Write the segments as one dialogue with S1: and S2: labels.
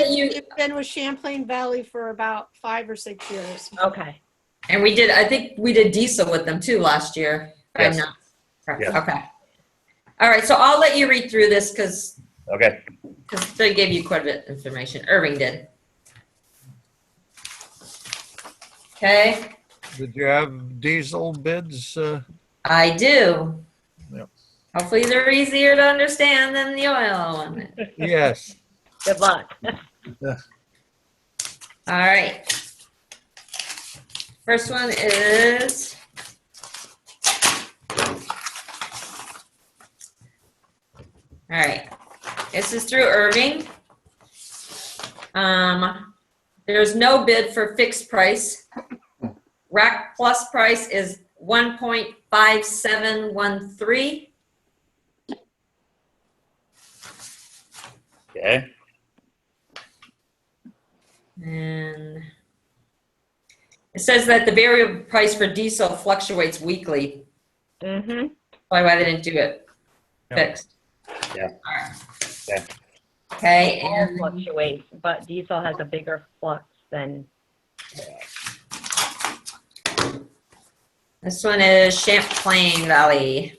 S1: We've been with Champlain Valley for about five or six years.
S2: Okay. And we did, I think we did diesel with them too last year. if I'm
S3: Yes.
S2: not correct.
S3: Yeah.
S2: Okay. All right, so I'll let you read through this because,
S3: Okay,
S2: they gave you quite a bit of information. Irving did. Okay,
S4: Did you have diesel bids? uh,
S2: I do.
S4: Yep.
S2: Hopefully they're easier to understand than the oil one.
S4: Yes.
S5: Good luck.
S2: All right. First one is. All right, this is through Irving. Um, there's no bid for fixed price. Rack plus price is one point five seven one three.
S3: okay,
S2: And it says that the variable price for diesel fluctuates weekly,
S5: Mm-hmm.
S2: probably why they didn't do it
S4: Yeah.
S2: fixed.
S3: Yeah. Yeah.
S2: Okay,
S5: All
S2: and
S5: fluctuates, but diesel has a bigger flux than,
S2: this one is Champlain Valley.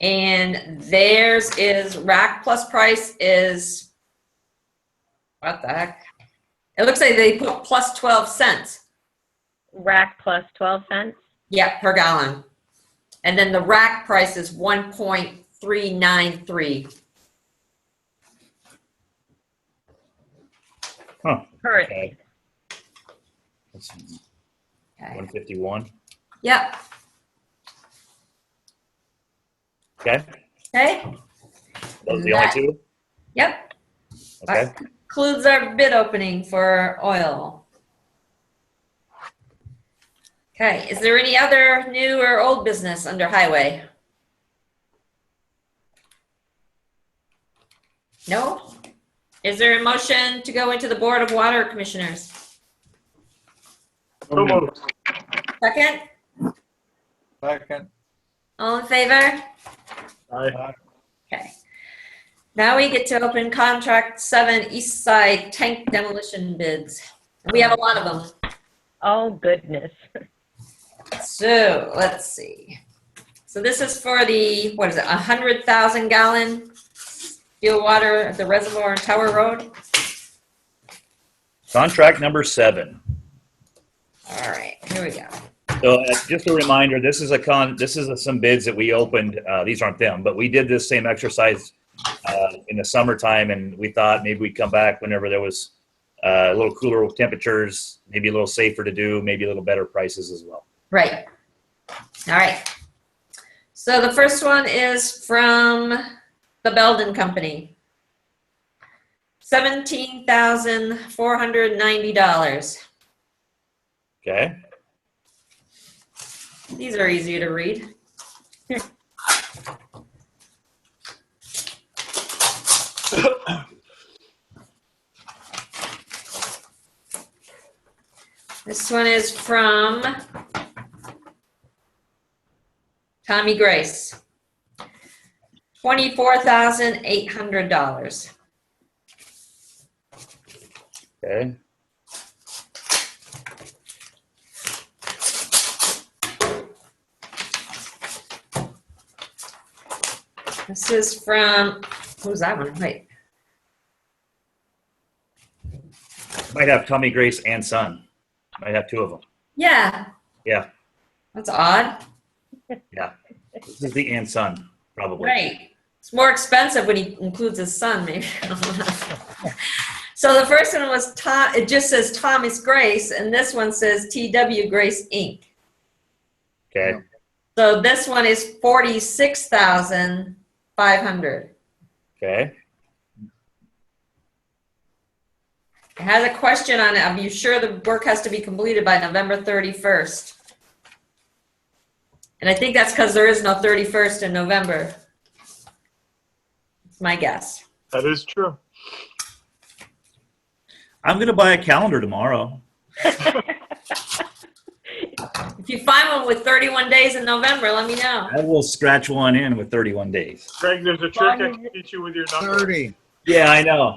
S2: And theirs is rack plus price is, what the heck? It looks like they put plus 12 cents.
S5: rack plus 12 cents.
S2: Yeah, per gallon. And then the rack price is one point three nine three.
S5: Currently,
S3: okay. That's
S2: Okay.
S3: one fifty-one,
S2: Yep,
S3: okay?
S2: okay,
S3: Those are the only
S2: That-
S3: two,
S2: yep.
S3: okay?
S2: Includes our bid opening for oil. Okay, is there any other new or old business under highway? No? Is there a motion to go into the Board of Water Commissioners?
S4: So moved.
S2: Second,
S4: Second.
S2: all in favor? Okay. Now we get to open contract seven, east side tank demolition bids. We have a lot of them.
S5: oh goodness.
S2: So let's see. So this is for the, what is it, a hundred thousand gallon steel water at the reservoir on Tower Road?
S3: Contract number seven.
S2: All right, here we go.
S3: So uh, just a reminder, this is a con, this is some bids that we opened. Uh, these aren't them, but we did this same exercise uh, in the summertime and we thought maybe we'd come back whenever there was uh, a little cooler temperatures, maybe a little safer to do, maybe a little better prices as well.
S2: Right. All right. So the first one is from the Belden Company. Seventeen thousand four hundred ninety dollars.
S3: Okay?
S2: These are easy to read. This one is from Tommy Grace. Twenty-four thousand eight hundred dollars.
S3: Okay?
S2: This is from, who's that one? Wait,
S3: Might have Tommy Grace and Son. Might have two of them.
S2: yeah.
S3: Yeah.
S2: That's odd.
S3: This is the and Son, probably.
S2: Right. It's more expensive when he includes his son, maybe. so the first one was Tom, it just says Thomas Grace, and this one says TW Grace Inc.
S3: Okay?
S2: So this one is 46,500.
S3: Okay?
S2: It has a question on it. Are you sure the work has to be completed by November 31st? And I think that's because there is no 31st in November. It's my guess.
S6: That is true.
S3: I'm going to buy a calendar tomorrow.
S2: If you find one with 31 days in November, let me know.
S3: I will scratch one in with 31 days.
S6: Greg, there's a trick I can teach you with your number.
S4: 30.
S3: Yeah, I know.